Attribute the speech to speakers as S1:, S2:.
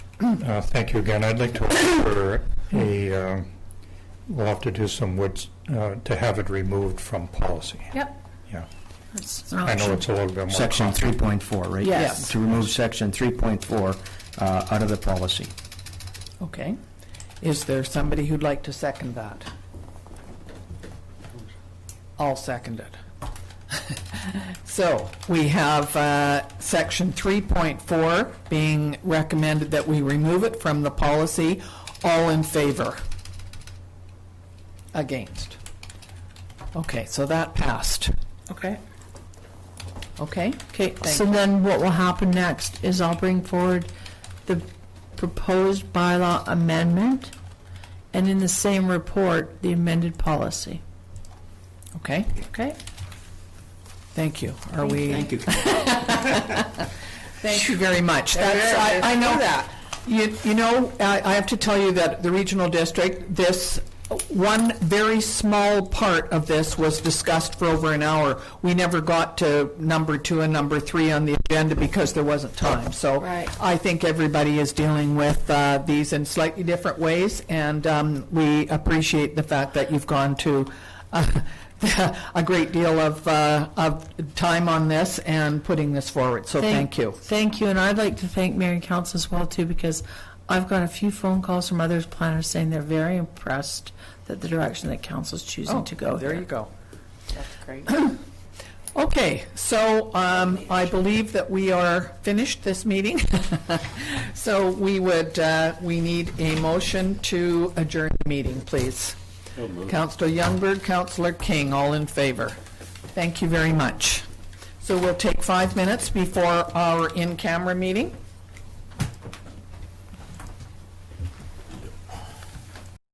S1: Uh, Thank you again. I'd like to offer a, um, we'll have to do some words, uh, to have it removed from policy.
S2: Yep.
S1: Yeah.
S2: That's-
S1: I know it's a little bit more.
S3: Section 3.4, right?
S2: Yes.
S3: To remove section 3.4 uh, out of the policy.
S2: Okay. Is there somebody who'd like to second that? I'll second it. So we have uh, Section 3.4 being recommended that we remove it from the policy. All in favor? Against? Okay, so that passed.
S4: Okay.
S2: Okay?
S4: Okay,
S2: Thank
S4: so then what will happen next is I'll bring forward the proposed bylaw amendment, and in the same report, the amended policy.
S2: Okay,
S4: Okay?
S2: thank you. Are we?
S3: you.
S2: Thank you very much. That's, I, I know that. You, you know, I, I have to tell you that the regional district, this, one very small part of this was discussed for over an hour. We never got to number two and number three on the agenda because there wasn't time. So
S4: Right.
S2: I think everybody is dealing with uh, these in slightly different ways, and um, we appreciate the fact that you've gone to uh, a great deal of, uh, of time on this and putting this forward, so thank you.
S4: Thank you, and I'd like to thank Mary Council as well, too, because I've got a few phone calls from other planners saying they're very impressed that the direction that council's choosing to go
S2: Oh, There you
S4: here.
S2: go. That's great. Okay, so um, I believe that we are finished this meeting. So we would, uh, we need a motion to adjourn the meeting, please. Counselor Youngberg, Counselor King, all in favor. Thank you very much. So we'll take five minutes before our in-camera meeting.